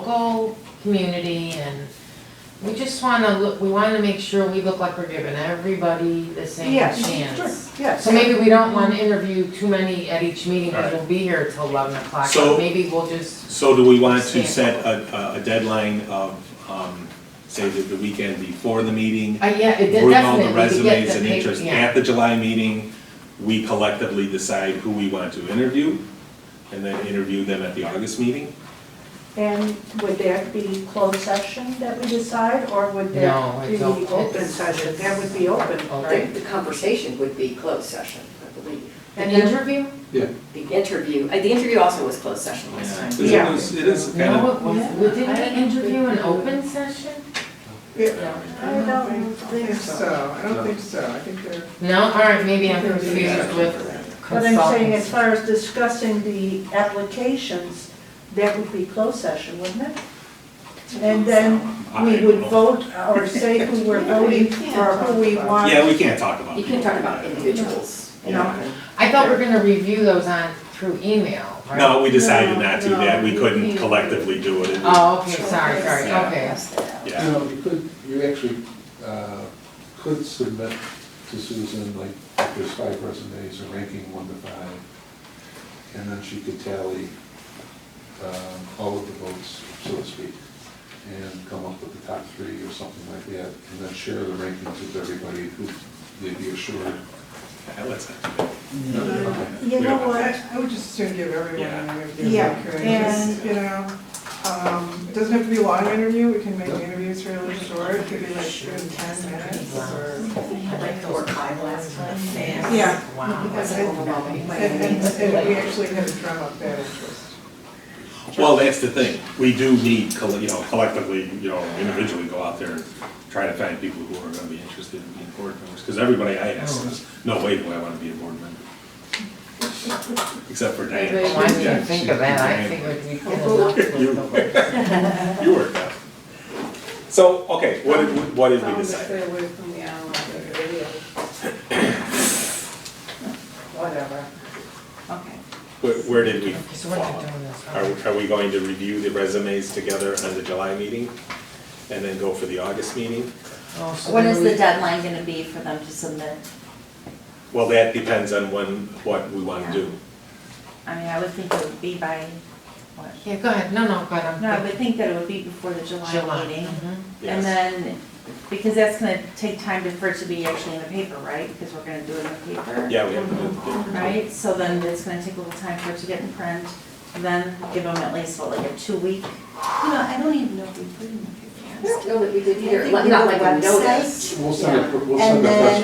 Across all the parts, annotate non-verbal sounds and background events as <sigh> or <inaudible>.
local community and we just wanna look, we wanna make sure we look like we're giving everybody the same Yes, chance. Yes. So maybe we don't wanna interview too many at each meeting, cause we'll be here till eleven o'clock, So- but maybe we'll just, So do we want to Stand. set a, a- a deadline of, um, say, the, the weekend before the meeting? uh, yeah, it Bring all definitely, we the could resumes get the and paper, interest. yeah. At the July meeting, we collectively decide who we want to interview and then interview them at the August meeting? And would that be closed session that we decide, or would that No, be it's open. open session? That would be open. I think the conversation would be closed session, I believe. An And then- interview? The interview, uh, the interview also was closed session last time. 'Cause It Yeah. is, it is kind No, of. it was- we didn't we interview an open session? I don't think so. I don't think so, I think they're. No, alright, maybe I'm confused with But I'm saying, as consultants. far as discussing the applications, that would be closed session, wouldn't it? And then we would vote or say who <laughs> we're voting for, who we want. Yeah, we can't talk about. You can talk about individuals, you know, and I thought we were gonna review those on, through email, right? No, we decided not to, No, that we no, couldn't you- collectively do it. It was- Oh, okay, sorry, sorry, Yeah. okay. Yeah, You know, you could, you actually uh, could submit to Susan, like, if there's five resumes, a ranking one to five, and then she could tally um, all of the votes, so to speak, and come up with the top three or something like that, and then share the rankings with everybody who they'd be assured. Yeah, let's- You know what? I I would just soon give everyone an interview Yeah. if I could, just, you know, um, it doesn't have to be a long interview, we can make the interviews really short, it could be like in ten minutes or. like the work five last time. Yeah. Wow. Because it- And, and, and we actually had a drum up that interest. Well, that's the thing, we do need, coll- you know, collectively, you know, individually go out there and try to find people who are gonna be interested in being board members, because everybody I ask says, no way do I wanna be a board member. Except for Diane. Why did you Yeah, think she- of that? I Diane. figured we'd get enough with the work. <laughs> You worked out. So, okay, what did, we- what did we Um, decide? Stay away from the online radio. Whatever. Okay. Where, where did we So we're not fall? doing this. Are, are we going to review the resumes together on the July meeting? And then go for the August meeting? Oh, so What then is we- the deadline gonna be for them to submit? Well, that depends on when, what we wanna do. I mean, I would think it would be by, what? Yeah, go ahead, no, no, go ahead, I'm. No, I would think that it would be before the July meeting. mhm. Yes. And then, because that's gonna take time to- for it to be actually in the paper, right? Because we're gonna do it in the paper. Yeah, we have to do it. Right, so then it's gonna take a little time for it to get in print, and then give them at least, what, like a two-week? You know, I don't even know if we put in I the don't know that we did either, either, like- not like a notice. We'll send a, we'll And send a press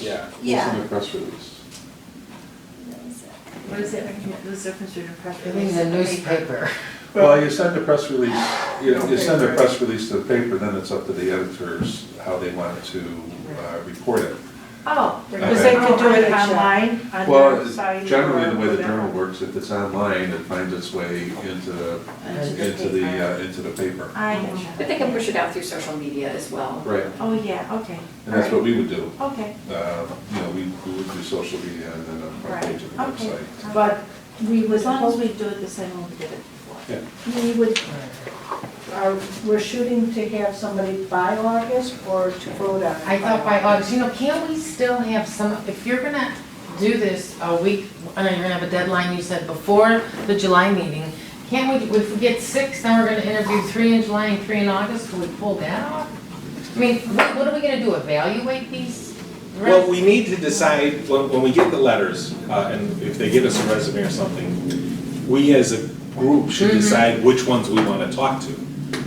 then, uh, release. Yeah. We'll send a press release. What is it, what's the difference between a press I think release the and a paper? newspaper. Well, you send a press release, you you send a press release to the paper, then it's up to the editors how they want to uh, report it. Oh, Okay. because they could do it online on Well, their it's site. generally, or the way the whatever. journal works, if it's online, it finds its way into, And it's just into the, paper. uh, into the paper. I gotcha. But they can push it out through social media as well. Right, Oh, yeah, okay. and that's what we would do. Okay, Uh, You know, we we would do social media and then on the front page of the Right, okay. website. But we would, as long as we do it the same way we did it before. we would, are, we're shooting to have somebody by August or to vote on. it I thought by August, you know, can't we still have some, if you're gonna do this a week, I know you're gonna have a deadline, you said, before the July meeting, can't we, if we get six, then we're gonna interview three in July and three in August, will we pull that off? I mean, what, what are we gonna do, evaluate these? Well, we need to decide, when, when we get the letters, uh, and if they give us a resume or something, we as a group should Mm-hmm. decide which ones we wanna talk to.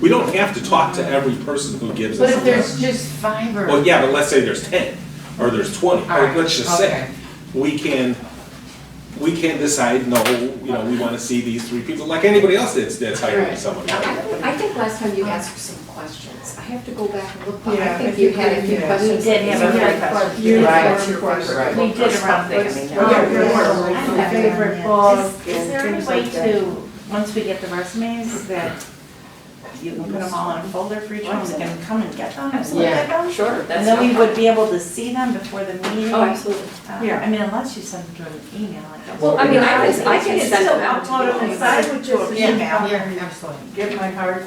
We don't have to talk to every person who gives But us a if there's letter. just five or. Well, yeah, but let's say there's ten, or there's twenty, All or right, let's just say, okay. we can, we can decide, no, you know, we wanna see these three people, like anybody else that's, that's hiring Right. someone. I think last time you asked for some questions. I have to go back and look, but Yeah, I I think think you had a we few did. questions. We did have a few Yeah, questions. you- Right. Uniform question. We did around Something, I things. mean, Oh, yeah, yeah. Yeah. Favorite book Is is and there any things way like that. to, once we get the resumes, that you can put them all in a folder for each one, we can come and get them and look Absolutely. at them. Sure, that's. And then no we would problem. be able to see them before the meeting. Oh, absolutely. Uh, Yeah. I mean, unless you send them to an email, I guess. Well, I mean, I can, I We can can send still them out to upload you. them inside. I would just Yeah, email. yeah, absolutely. Get my hard